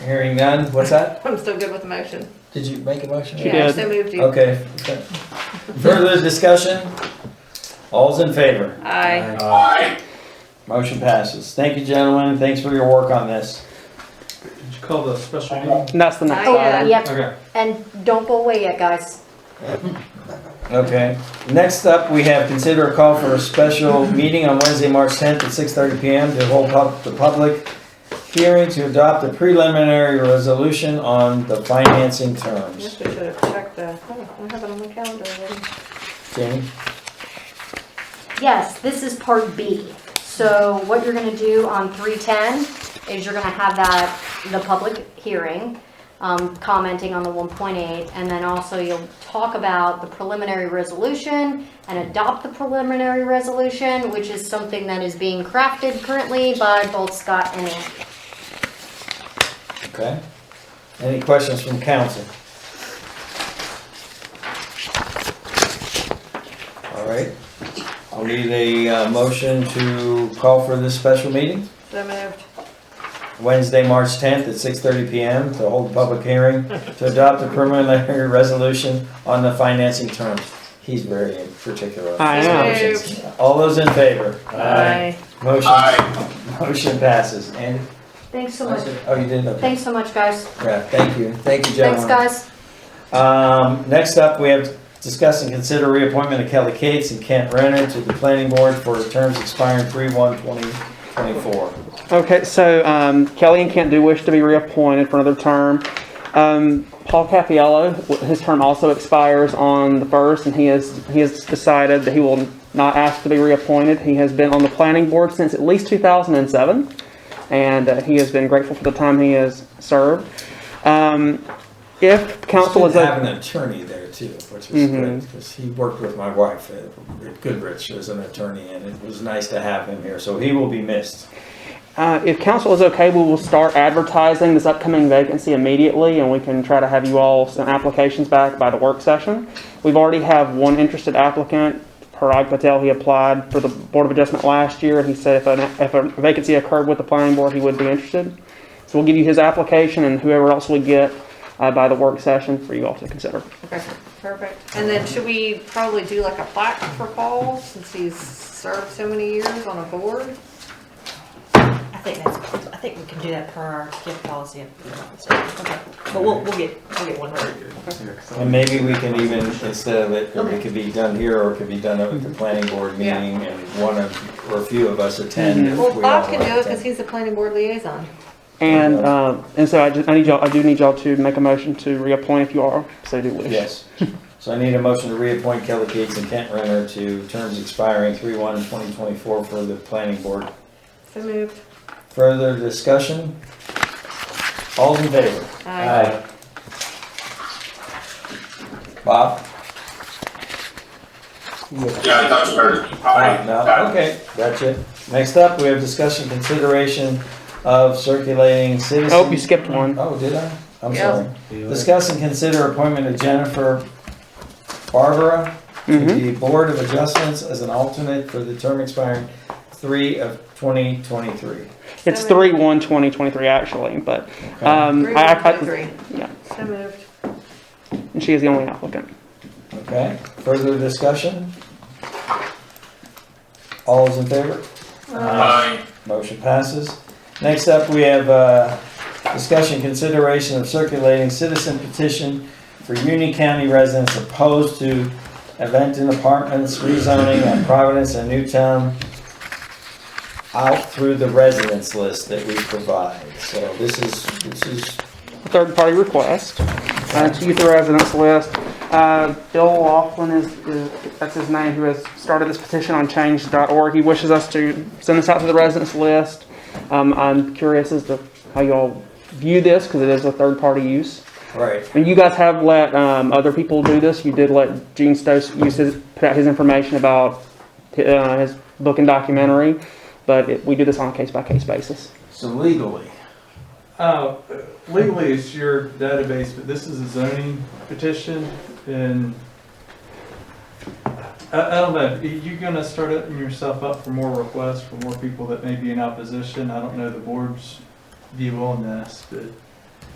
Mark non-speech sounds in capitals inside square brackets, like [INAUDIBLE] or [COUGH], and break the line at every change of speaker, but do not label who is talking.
Hearing none, what's that?
I'm still good with the motion.
Did you make a motion?
She
Yeah,
did.
so moved you.
Okay. Further discussion? All's in favor?
Aye.
Motion passes. Thank you, gentlemen. Thanks for your work on this.
Did you call the special meeting?
And that's the next
Oh,
item.
Yep,
Okay.
and don't go away yet, guys.
Okay. Next up, we have consider a call for a special [LAUGHS] meeting on Wednesday, March 10th at 6:30 PM to hold pub- the public hearing to adopt a preliminary resolution on the financing terms.
Yes, we should have checked the, oh, I have it on my calendar already.
Jamie?
Yes, this is part B. So what you're gonna do on three ten is you're gonna have that, the public hearing, um, commenting on the one point eight, and then also you'll talk about the preliminary resolution and adopt the preliminary resolution, which is something that is being crafted currently by both Scott and Andy.
Okay. Any questions from council? All right. I'll need a uh, motion to call for this special meeting,
So moved.
Wednesday, March 10th at 6:30 PM to hold a public hearing to adopt a preliminary [LAUGHS] resolution on the financing terms. He's very in particular.
I
am.
All those in favor?
Aye.
Motion, motion passes. And,
Thanks so much.
oh, you did, okay.
Thanks so much, guys.
Yeah, uh, thank you. Thank you, gentlemen.
Thanks, guys.
Um, next up, we have discuss and consider reappointment of Kelly Cates and Kent Renner to the planning board for terms expiring three one twenty twenty-four.
Okay, so um, Kelly and Kent do wish to be reappointed for another term. Um, Paul Capiello, w- his term also expires on the first, and he has he has decided that he will not ask to be reappointed. He has been on the planning board since at least 2007, and uh, he has been grateful for the time he has served. Um, if council is
Should
a,
have an attorney there too, which is
Mhm.
good, because he worked with my wife at at Goodrich as an attorney, and it was nice to have him here, so he will be missed.
uh, if council is okay, we will start advertising this upcoming vacancy immediately, and we can try to have you all send applications back by the work session. We've already have one interested applicant, Parag Patel. He applied for the Board of Adjustment last year, and he said if an if a vacancy occurred with the planning board, he would be interested. So we'll give you his application and whoever else we get uh, by the work session for you all to consider.
Okay, perfect. And then should we probably do like a plaque for Paul since he's served so many years on a board?
I think that's, I think we can do that per our gift policy. Okay, But we'll, we'll get, we'll get one.
And maybe we can even, instead of it, it could be done here, or it could be done at the planning board
Yeah.
meeting, and one of, or a few of us attend. if
Well,
we all
Bob can do it
attend.
because he's the planning board liaison.
And
Okay.
uh, and so I, just, I need y'all. I do need y'all to make a motion to reappoint if you are so do wish.
Yes. So I need a motion to reappoint Kelly Cates and Kent Renner to terms expiring three one 2024 for the planning board.
So moved.
Further discussion? All's in favor?
Aye.
Bob?
Yeah, Dutch Hurt.
Aye, No, okay, gotcha. Next up, we have discussion consideration of circulating citizen.
Oh, you skipped one.
Oh, did I? I'm
Yeah.
sorry. Discuss and consider appointment of Jennifer Barbara to
Mhm.
the Board of Adjustments as an alternate for the term expiring three of twenty twenty-three.
It's
Seven.
three one twenty twenty three actually, but um,
Three,
I,
one,
I,
two, three.
yeah.
So moved.
and she is the only applicant.
Okay, further discussion? All is in favor?
Aye.
Motion passes. Next up, we have uh, discussion consideration of circulating citizen petition for Union County residents opposed to Eventon Apartments rezoning on Providence and Newtown out through the residence list that we provide. So this is, this is,
Third party request uh, to youth residents list. Uh, Bill Laughlin is, is that's his name who has started this petition on change.org. He wishes us to send this out to the residents list. Um, I'm curious as to how y'all view this because it is a third party use.
right,
And you guys have let um, other people do this. You did let Gene Stokes use his, put out his information about uh, his book and documentary, but it, we do this on a case by case basis.
so legally.
Uh, legally, it's your database, but this is a zoning petition and I, I don't know, you're gonna start opening yourself up for more requests, for more people that may be in opposition. I don't know the board's view on this, but